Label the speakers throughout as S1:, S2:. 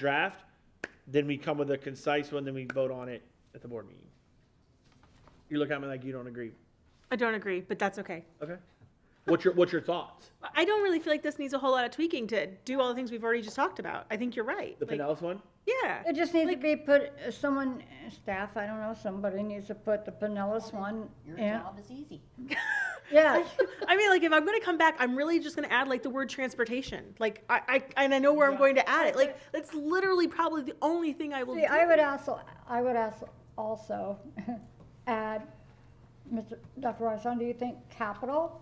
S1: draft, then we come with a concise one, then we vote on it at the board meeting. You look at me like you don't agree.
S2: I don't agree, but that's okay.
S1: Okay. What's your, what's your thoughts?
S2: I don't really feel like this needs a whole lot of tweaking to do all the things we've already just talked about. I think you're right.
S1: The
S2: Like,
S1: Pinellas one?
S2: yeah.
S3: It just needs to be put, uh, someone, staff, I don't know, somebody needs to put the
S2: Oh,
S3: Pinellas one
S4: Your
S3: in.
S4: job is easy.
S3: Yeah,
S2: I mean, like, if I'm going to come back, I'm really just going to add, like, the word transportation. Like, I, I and I know where I'm going to add it. Like, that's literally probably the only thing I will
S3: see,
S2: do.
S3: I would also, I would ask also, add, Mr. Dr. Rosson, do you think capital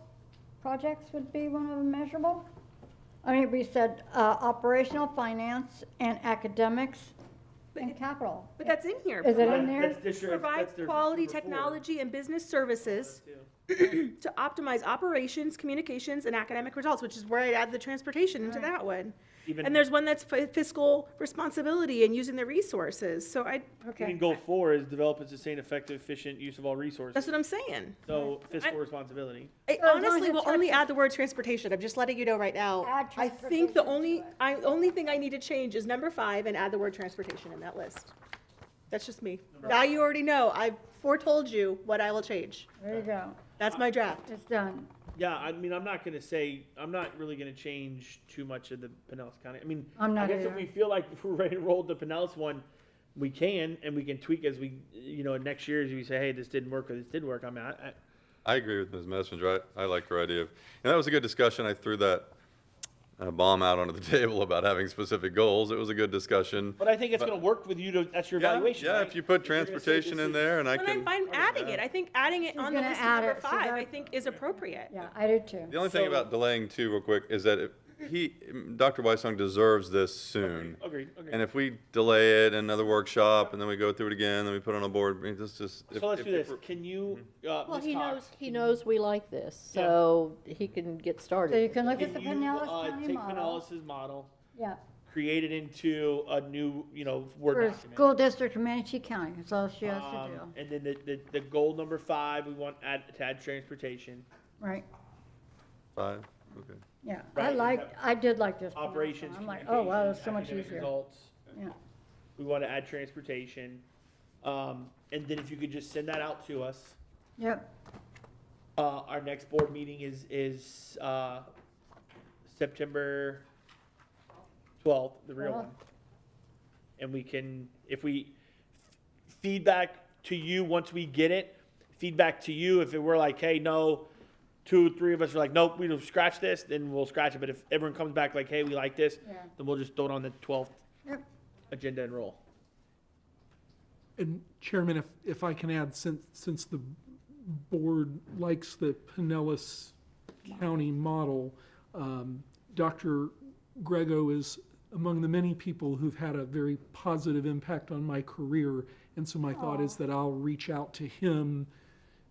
S3: projects would be one of the measurable? I mean, we said, uh, operational, finance, and academics, and capital.
S2: but that's in here.
S3: Is it in
S1: That-
S3: there?
S1: that's this year- that's
S2: Provide
S1: their
S2: quality
S1: number four.
S2: technology and business services to optimize operations, communications, and academic results, which is where I'd add the transportation into that one.
S1: Even-
S2: And there's one that's fi- fiscal responsibility and using the resources. So I,
S1: Even
S3: Okay,
S1: goal four is develop and sustain effective, efficient use of all resources.
S2: that's what I'm saying.
S1: So fiscal
S2: I-
S1: responsibility.
S2: I
S3: So as long
S2: honestly
S3: as
S2: will
S3: it's
S2: only
S3: transport-
S2: add the word transportation. I'm just letting you know right now.
S3: Add
S2: I think the
S3: transportation
S2: only,
S3: to it.
S2: I, only thing I need to change is number five and add the word transportation in that list. That's just me. Now you already know. I've foretold you what I will change.
S3: there you go,
S2: That's my draft.
S3: it's done.
S1: Yeah, I mean, I'm not gonna say, I'm not really gonna change too much of the Pinellas County. I mean,
S3: I'm
S1: I
S3: not
S1: guess if
S3: either.
S1: we feel like we're ready to roll the Pinellas one, we can, and we can tweak as we, you know, next year as we say, hey, this didn't work or this did work. I mean, I, I,
S5: I agree with Ms. Messenger. I, I like her idea of, and that was a good discussion. I threw that uh, bomb out onto the table about having specific goals. It was a good discussion.
S1: But I think it's going to work with you to, that's your
S5: Yeah,
S1: evaluation.
S5: Yeah,
S1: right?
S5: if you put
S1: you're gonna say
S5: transportation
S1: this
S5: in
S1: is-
S5: there and I
S2: But I'm
S5: can,
S2: fine adding it. I think adding it
S3: She's
S2: on the
S3: gonna
S2: list of
S3: add
S2: number
S3: it, so
S2: five,
S3: that-
S2: I think is appropriate.
S3: Yeah, I do too.
S5: the only thing
S1: So-
S5: about delaying too, real quick, is that it- he, Dr. Weissong deserves this soon.
S1: Agreed, agreed.
S5: And if we delay it another workshop and then we go through it again, then we put it on a board, I mean, this just. if-
S1: So let's
S5: if-
S1: do
S5: if
S1: this.
S5: we're-
S1: Can you, uh,
S4: Well,
S1: Ms.
S4: he
S1: Cox,
S4: knows, he knows we like this,
S1: Yeah.
S4: so he can get
S3: So you
S4: started.
S3: can look
S1: can
S3: at the
S1: you,
S3: Pinellas
S1: uh,
S3: County
S1: take
S3: model.
S1: Pinellas's model,
S3: Yeah,
S1: create it into a new, you know, Word
S3: for a
S1: document.
S3: school district in Manatee County, that's all she has to
S1: Um,
S3: do,
S1: and then the, the, the goal number five, we want add, to add transportation,
S3: right?
S5: Five, okay.
S3: Yeah,
S1: Right,
S3: I
S1: is
S3: like,
S1: that-
S3: I did like this. Pinellas one.
S1: operations,
S3: I'm like, oh, wow,
S1: communications,
S3: that's so much
S1: academic
S3: easier.
S1: Results.
S3: Yeah.
S1: We want to add transportation. Um, and then if you could just send that out to us.
S3: Yep,
S1: Uh, our next board meeting is, is, uh, September twelfth, the real one. And we can, if we, feedback to you, once we get it, feedback to you, if it were like, hey, no, two, three of us are like, nope, we don't scratch this, then we'll scratch it, but if everyone comes back like, hey, we like this,
S3: Yeah.
S1: then we'll just throw it on the twelfth
S3: yep,
S1: agenda and roll.
S6: And Chairman, if, if I can add, since, since the board likes the Pinellas County model, um, Dr. Grego is among the many people who've had a very positive impact on my career. And so my thought is that I'll reach out to him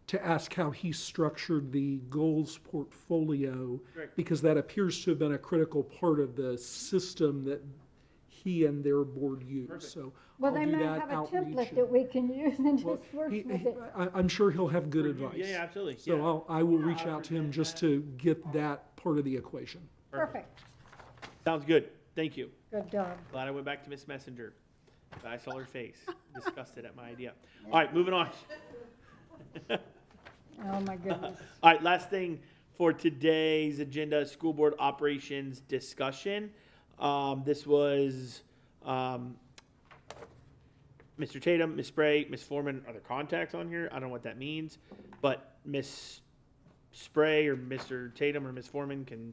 S6: to ask how he structured the goals portfolio.
S1: Great.
S6: Because that appears to have been a critical part of the system that he and their board use. So
S3: well,
S6: I'll
S3: they
S6: do
S3: might
S6: that
S3: have a
S6: outreach
S3: template
S6: and-
S3: that we can use and
S6: well,
S3: just work
S6: he-
S3: with
S6: he-
S3: it.
S6: I, I'm sure he'll have good
S1: Yeah,
S6: advice.
S1: Yeah, absolutely,
S6: So uh,
S1: yeah,
S6: I'll, I will reach out to him just to get that part of the equation.
S3: Perfect,
S1: sounds good, thank you.
S3: good job.
S1: Glad I went back to Miss Messenger. I saw her face, disgusted at my idea. All right, moving on.
S3: Oh, my goodness.
S1: All right, last thing for today's agenda, school board operations discussion. Um, this was, um, Mr. Tatum, Ms. Spray, Ms. Foreman, are there contacts on here? I don't know what that means, but Ms. Spray or Mr. Tatum or Ms. Foreman can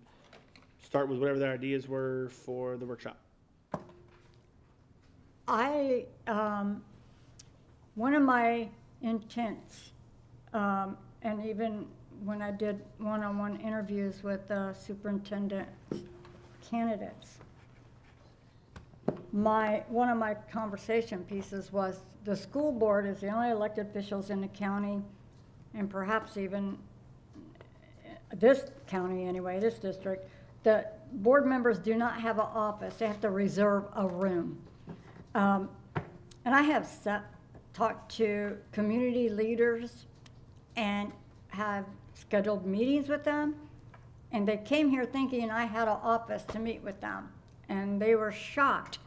S1: start with whatever their ideas were for the workshop.
S3: I, um, one of my intents, um, and even when I did one-on-one interviews with uh, superintendent candidates, my, one of my conversation pieces was, the school board is the only elected officials in the county, and perhaps even uh, this county anyway, this district, the board members do not have an office, they have to reserve a room. Um, And I have sa- talked to community leaders and have scheduled meetings with them. And they came here thinking I had an office to meet with them. And they were shocked